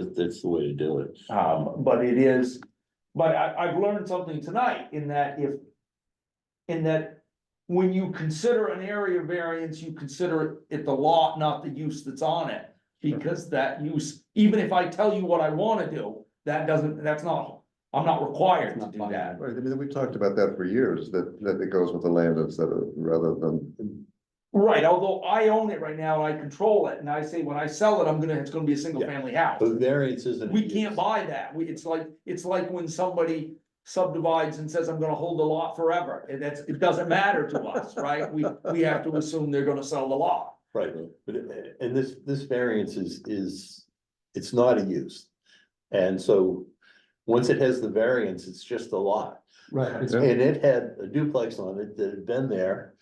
That- That's the way to do it. Oh, Um, but it is, but I, I've learned something tonight in that if. In that, when you consider an area variance, you consider it the lot, not the use that's on it. Because that use, even if I tell you what I wanna do, that doesn't, that's not, I'm not required to do that. Right, I mean, we've talked about that for years, that, that it goes with the land instead of, rather than, Right, although I own it right now, and I control it, and I say when I sell it, I'm gonna, it's gonna be a single family house. But variance isn't. We can't buy that, we, it's like, it's like when somebody subdivides and says, I'm gonna hold the lot forever, and that's, it doesn't matter to us, right? We, we have to assume they're gonna sell the lot. Right, but, uh, and this, this variance is, is, it's not a use. And so, once it has the variance, it's just a lot. Right, Yeah. And it had a duplex on it that had been there,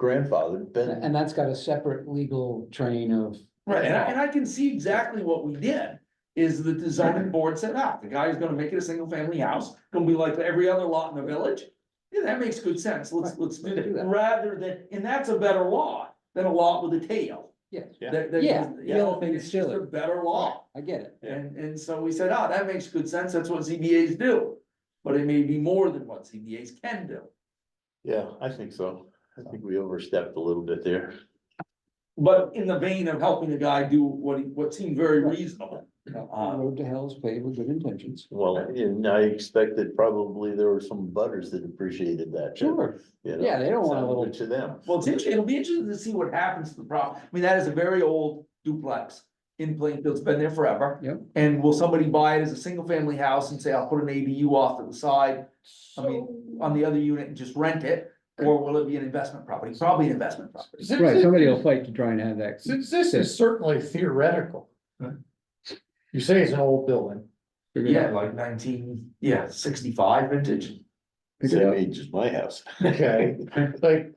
grandfathered, been, and that's got a separate legal train of. Right, and I, and I can see exactly what we did, is that the zoning board said, ah, the guy's gonna make it a single family house, gonna be like every other lot in the village. Yeah, that makes good sense, let's, Right, let's do let's do that, that. rather than, and that's a better lot than a lot with a tail. Yes. Yeah. That- that- Yeah, you the know, other thing it's is just a silly. Better lot. I get it. Yeah. And, and so we said, ah, that makes good sense, that's what ZBAs do, but it may be more than what ZBAs can do. yeah, I think so. I think we overstepped a little bit there. But in the vein of helping a guy do what he, what seemed very reasonable. No, Uh-huh. the Road to hell is paved with good intentions. Well, and I expected probably there were some butters that appreciated that too. Sure, you know? yeah, they don't want a Sounded little, good To them. Well, it's interesting, it'll be interesting to see what happens to the problem, I mean, that is a very old duplex in Plainfield, it's been there forever. Yep. And will somebody buy it as a single family house and say, I'll put an ADU off to the side I mean, on the other unit and just rent it? Or will it be an investment property, probably an investment property, Since right, this- somebody will fight to try and have that. Since this is certainly theoretical. You say it's an old building, figured yeah, out. like nineteen, yeah, sixty-five vintage. Same age as my house. okay, like,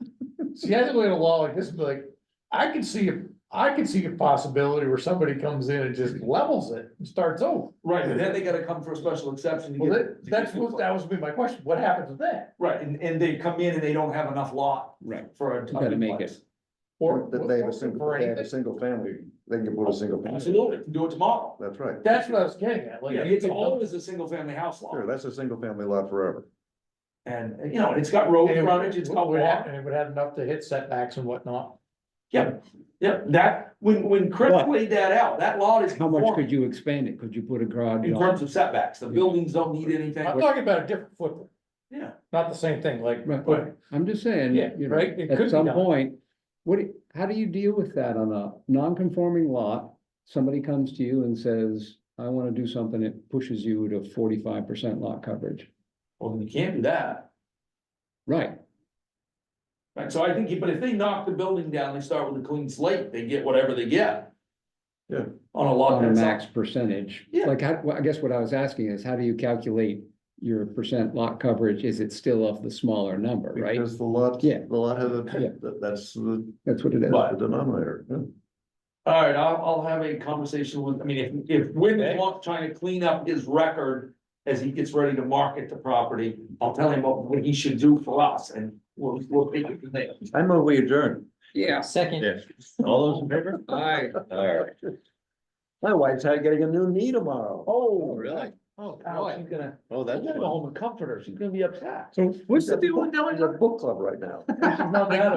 see, I think we had a law like this, be like, I could see, a- I could see a possibility where somebody comes in and just levels it and starts over. Right, but then they gotta come for a special exception. to Well, get- that, that's what, that was be my question, what happened to that? Right, and, and they come in and they don't have enough lot Right, for a. You gotta make duplex. Or, that they have a single, for they have a anything, single family, they can put a single. family. Absolutely, can do it tomorrow. That's right. that's what I was getting at, like. Yeah, it's always a single family house Sure, lot, that's a single family lot forever. and, you know, it's got road And it would- frontage, it's got would have- water. And it would have enough to hit setbacks and whatnot. Yeah, that, when, when Chris But- laid that out, that lot is. how much conforming could you expand it? Could you put a garage? In on- terms of setbacks, the buildings don't need anything, I'm talking about a different footprint, yeah, not the same thing, like, Right. but I'm just saying, Yeah, you know, right, it could be at some done. point, what, do you- how do you deal with that on a non-conforming lot? Somebody comes to you and says, I wanna do something that pushes you to forty-five percent lot coverage, well, then you can't do that. right? Right, so I think, but if they knock the building down, they start with a clean slate, they get whatever they get. Yeah. On a lot Oh, On a that's. max percentage, Yeah. like, I, well, I guess what I was asking is, how do you calculate your percent lot coverage? Is it still of the smaller number, right? Because the lot, Yeah. the lot has a, Yeah. that- that's the That's what it is. But- the denominator. yeah. All right, I'll, I'll have a conversation with, I mean, if, if Wyndham Okay. wants trying to clean up his record as he gets ready to market the property, I'll tell him what, what he should do for us and we'll, we'll take it from there. I move we adjourn. Yeah. Second. All those in favor? Aye. All right. My wife's had getting a new knee tomorrow. Oh, really? Oh, Ouch, boy. he's gonna, Oh, I'm that's. gonna fun. go home and comfort her, she's gonna be upset. What's the deal with doing? A book club right now. She's not mad